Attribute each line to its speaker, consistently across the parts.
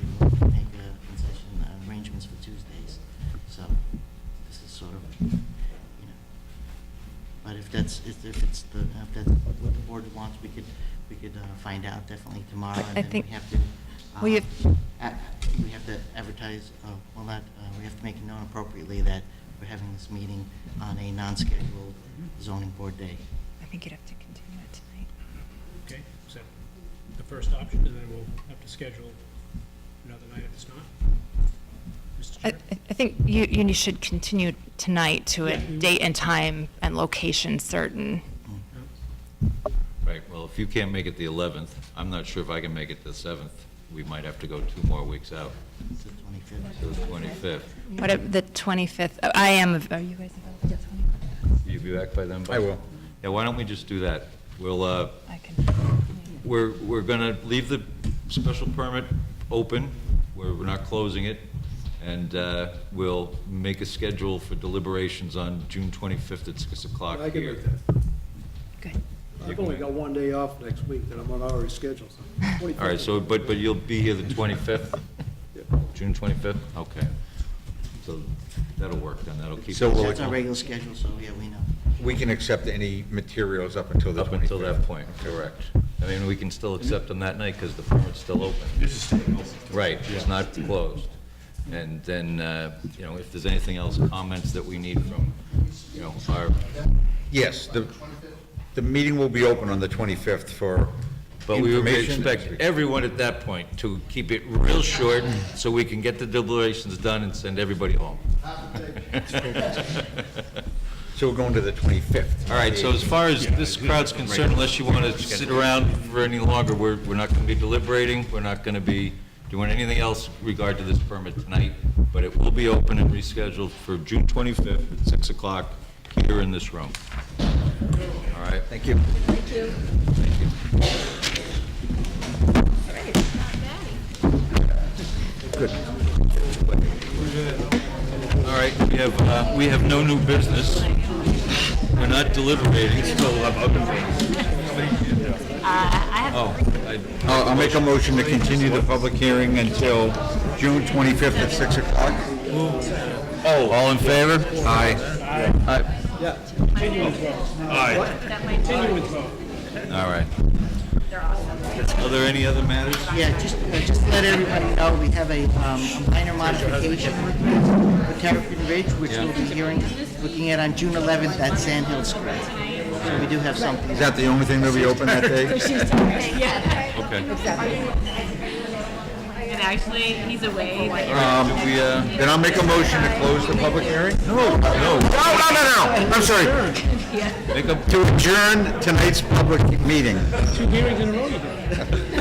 Speaker 1: make a concession uh, arrangements for Tuesdays. So this is sort of, you know, but if that's, if if it's the, if that's what the board wants, we could, we could uh, find out definitely tomorrow.
Speaker 2: I- I
Speaker 1: And then
Speaker 2: think-
Speaker 1: we have to,
Speaker 2: Well, you-
Speaker 1: um, a- we have to advertise, uh, well, not, uh, we have to make it known appropriately that we're having this meeting on a non-scheduled zoning board day.
Speaker 2: I think you'd have to continue it tonight.
Speaker 3: Okay, so the first option, and then we'll have to schedule another night if it's not. Mr.
Speaker 2: I,
Speaker 3: Chair?
Speaker 2: I- I think you, you should continue tonight to a
Speaker 3: Yeah, we will.
Speaker 2: date and time and location certain.
Speaker 3: No?
Speaker 4: Right, well, if you can't make it the 11th, I'm not sure if I can make it the 7th. We might have to go two more weeks out,
Speaker 1: It's the 25th.
Speaker 4: to the 25th.
Speaker 2: What, if the 25th, oh, I am, av- are you guys available the 25th?
Speaker 4: Will you be back by then? I will. Yeah, why don't we just do that? We'll, uh,
Speaker 2: I can,
Speaker 4: we're, we're gonna leave the special permit open, we're, we're not closing it, and uh, we'll make a schedule for deliberations on June 25th at 6 o'clock here.
Speaker 5: I can make that.
Speaker 2: good.
Speaker 5: I've only got one day off next week that I'm on already scheduled.
Speaker 4: All right, so, but, but you'll be here the 25th? June 25th? Okay. So that'll work then, that'll keep.
Speaker 6: So
Speaker 4: us
Speaker 6: we'll-
Speaker 1: That's our regular schedule, so yeah, we know.
Speaker 6: We can accept any materials up until the 25th.
Speaker 4: Up until that point, correct. I mean, we can still accept them that night because the permit's still open. This is staying open. Right, it's not closed. And then, uh, you know, if there's anything else, comments that we need from, you know, our,
Speaker 6: Yes, the, the meeting will be open on the 25th for
Speaker 4: but we would
Speaker 6: information.
Speaker 4: expect everyone at that point to keep it real short so we can get the deliberations done and send everybody home.
Speaker 6: So we're going to the 25th.
Speaker 4: All right, so as far as this crowd's concerned, unless you want to sit around for any longer, we're, we're not going to be deliberating, we're not going to be doing anything else in regard to this permit tonight, but it will be open and rescheduled for June 25th at 6 o'clock here in this room. All right?
Speaker 6: Thank you.
Speaker 4: All right, we have, uh, we have no new business. We're not deliberating. Oh, I-
Speaker 6: I'll I'll make a motion to continue the public hearing until June 25th at 6 o'clock. Oh. All in favor? Aye. Aye.
Speaker 4: all right. Are there any other matters?
Speaker 1: Yeah, just, uh, just to let everybody know, we have a um, a minor modification for Terrapin Ridge, which we'll be hearing, looking at on June 11th at Sand Hill Square. So we do have something.
Speaker 6: Is that the only thing that'll be open that day?
Speaker 4: Okay.
Speaker 7: And actually, he's away.
Speaker 4: Um, do we, uh,
Speaker 6: Then I'll make a motion to close the public hearing? No, no. No, no, no, I'm sorry.
Speaker 4: make a,
Speaker 6: To adjourn tonight's public meeting.
Speaker 3: Two hearings in a row you did.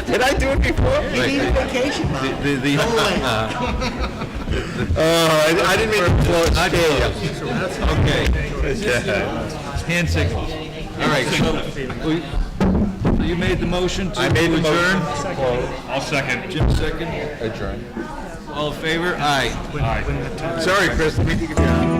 Speaker 6: Did I do it before?
Speaker 1: We need a vacation, Mom.
Speaker 4: the, the- uh, the.
Speaker 6: Oh, I didn't mean to blow it.
Speaker 4: Not close. Okay. Hand signals. All right, so, we- so you made the motion to
Speaker 6: I made the
Speaker 4: adjourn?
Speaker 6: motion.
Speaker 4: I'll second. Jim second?
Speaker 6: Adjourn.
Speaker 4: All in favor? Aye.
Speaker 6: Sorry, Chris, let me take it down.